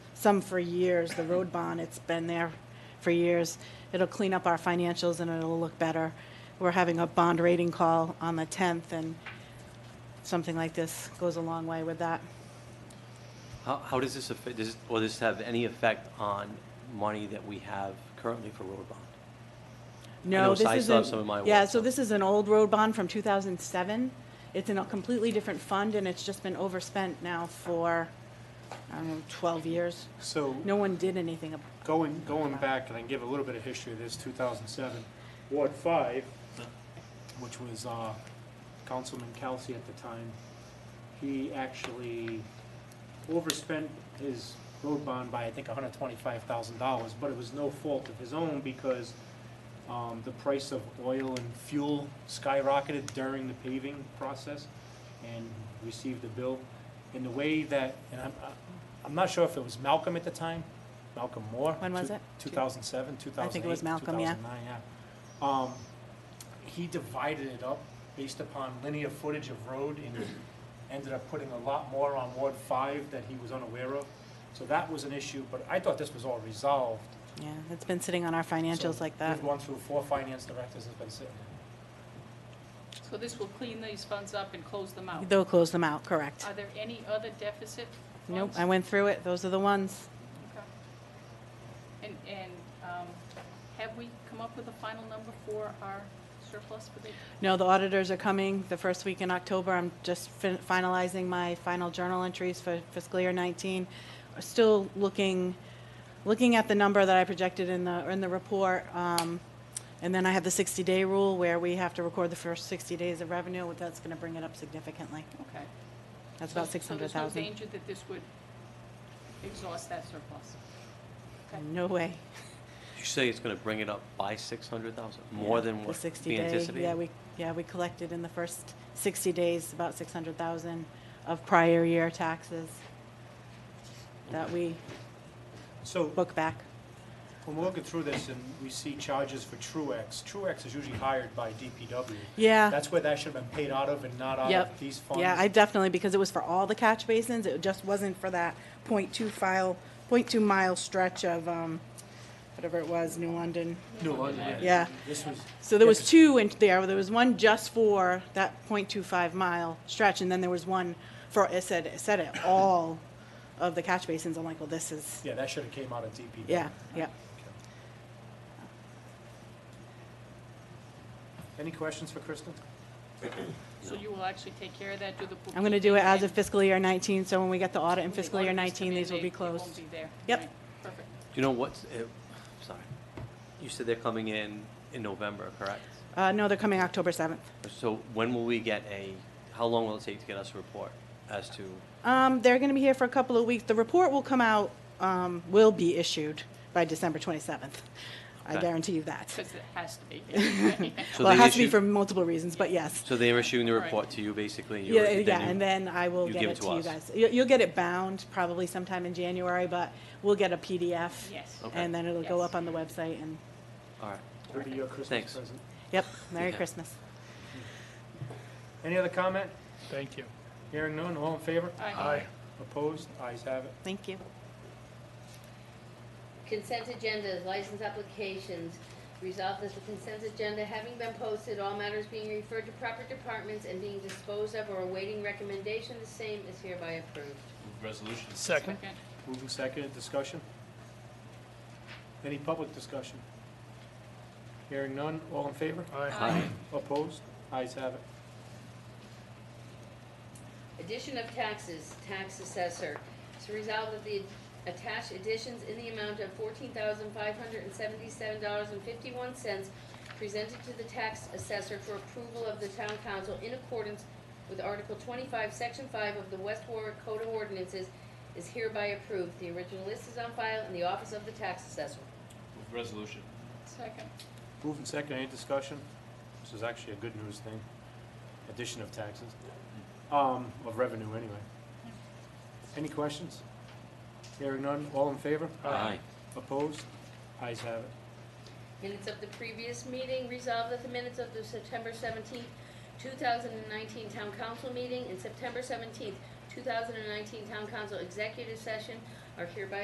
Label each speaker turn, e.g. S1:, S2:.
S1: some for years, the road bond, it's been there for years. It'll clean up our financials and it'll look better. We're having a bond rating call on the 10th, and something like this goes a long way with that.
S2: How, how does this affect, does, will this have any effect on money that we have currently for road bond?
S1: No,
S2: know,
S1: this
S2: so
S1: isn't.
S2: I still have some in my
S1: Yeah,
S2: wallet,
S1: so
S2: so-
S1: this is an old road bond from 2007. It's in a completely different fund, and it's just been overspent now for, I don't know, 12 years.
S3: So
S1: No one did anything about
S3: going, going back, and I can give a little bit of history of this, 2007, Ward 5, which was uh, Councilman Kelsey at the time, he actually overspent his road bond by, I think, $125,000, but it was no fault of his own because um, the price of oil and fuel skyrocketed during the paving process and received a bill. And the way that, and I'm, I'm not sure if it was Malcolm at the time, Malcolm Moore.
S1: When was it?
S3: 2007, 2008.
S1: I think it was Malcolm, yeah.
S3: 2009, yeah. Um, he divided it up based upon linear footage of road and ended up putting a lot more on Ward 5 that he was unaware of. So that was an issue, but I thought this was all resolved.
S1: Yeah, it's been sitting on our financials
S3: So
S1: like that.
S3: We've gone through four finance directors, it's been sitting there.
S4: So this will clean these funds up and close them out.
S1: They'll close them out, correct.
S4: Are there any other deficit
S1: Nope,
S4: funds?
S1: I went through it, those are the ones.
S4: Okay. And, and um, have we come up with a final number for our surplus for the,
S1: No, the auditors are coming the first week in October. I'm just fin- finalizing my final journal entries for fiscal year 19. Still looking, looking at the number that I projected in the, in the report. um, And then I have the 60-day rule where we have to record the first 60 days of revenue. That's going to bring it up significantly.
S4: okay.
S1: That's about
S4: So- So there's no
S1: 600,000.
S4: danger that this would exhaust that surplus? danger-
S1: No way.
S2: You say it's gonna bring it up by six hundred thousand, more than what
S1: The 60
S2: we
S1: day,
S2: anticipated?
S1: Yeah, we, yeah, we collected in the first 60 days about 600,000 of prior year taxes that we
S3: So
S1: book back.
S3: when we're looking through this and we see charges for Truex, Truex is usually hired by DPW.
S1: Yeah,
S3: That's where that should have been paid out of and not out
S1: Yep.
S3: of these funds.
S1: yeah, I definitely, because it was for all the catch basins, it just wasn't for that .2 file, .2 mile stretch of, um, whatever it was, New London.
S3: No, I-
S1: Yeah.
S3: This was.
S1: So there was
S3: Yeah, 'cause
S1: two in there, there was one just for that .25 mile stretch, and then there was one for, it said, it said it, all of the catch basins. I'm like, well, this is,
S3: Yeah, that should have came out of DPW.
S1: yeah, yeah.
S3: Any questions for Kristen?
S4: So you will actually take care of that, do the bookkeeping?
S1: I'm gonna do it as of
S4: and-
S1: fiscal year 19, so when we get the audit in
S4: when the
S1: fiscal year
S4: auditors come
S1: 19,
S4: in,
S1: these will
S4: they-
S1: be
S4: they
S1: closed.
S4: won't be there.
S1: Yep.
S4: Right. Perfect.
S2: You know what's, eh, sorry, you said they're coming in in November, correct?
S1: Uh, no, they're coming October 7th.
S2: So when will we get a, how long will it take to get us a report as to,
S1: Um, they're gonna be here for a couple of weeks. The report will come out, um, will be issued by December 27th. I
S2: Okay.
S1: guarantee you that.
S4: Because it has to be.
S2: So
S1: Well, it
S2: they
S1: has to be
S2: issued-
S1: for multiple reasons, but yes.
S2: so they're issuing the
S4: Right.
S2: report to you basically? you're-
S1: Yeah, yeah,
S2: you-
S1: and then I will
S2: you
S1: get
S2: give
S1: it
S2: it
S1: to
S2: to
S1: you
S2: us.
S1: guys. You- You'll get it bound probably sometime in January, but we'll get a PDF.
S4: Yes.
S2: Okay.
S1: And then it'll go
S4: Yes.
S1: up on the website and,
S2: All right,
S3: It'll be your Christmas
S2: Thanks.
S3: present.
S1: yep, Merry
S2: Yeah.
S1: Christmas.
S3: Any other comment?
S5: Thank you.
S3: Hearing none, all in favor?
S4: Aye.
S3: Opposed? Ayes have it.
S1: Thank you.
S6: Consent agendas, license applications. Resolved that the consent agenda having been posted, all matters being referred to proper departments and being disposed of or awaiting recommendation, the same is hereby approved.
S7: Move resolution.
S5: Second.
S4: Second.
S3: Moving second, discussion? Any public discussion? Hearing none, all in favor?
S5: Aye.
S4: Aye.
S3: Opposed? Ayes have it.
S6: Addition of taxes, tax assessor. It's resolved that the attached additions in the amount of fourteen thousand five hundred and seventy-seven dollars and fifty-one cents presented to the tax assessor for approval of the town council in accordance with Article twenty-five, Section five of the West Warwick Code of Ordinances is hereby approved. The original list is on file in the office of the tax assessor.
S7: Move resolution.
S4: Second.
S3: Moving second, any discussion? This is actually a good news thing. Addition of taxes, um, of revenue anyway. Any questions? Hearing none, all in favor?
S2: aye,
S3: Opposed? Ayes have it.
S6: Minutes of the previous meeting, resolved that the minutes of the September seventeenth, two thousand and nineteen town council meeting and September seventeenth, two thousand and nineteen town council executive session are hereby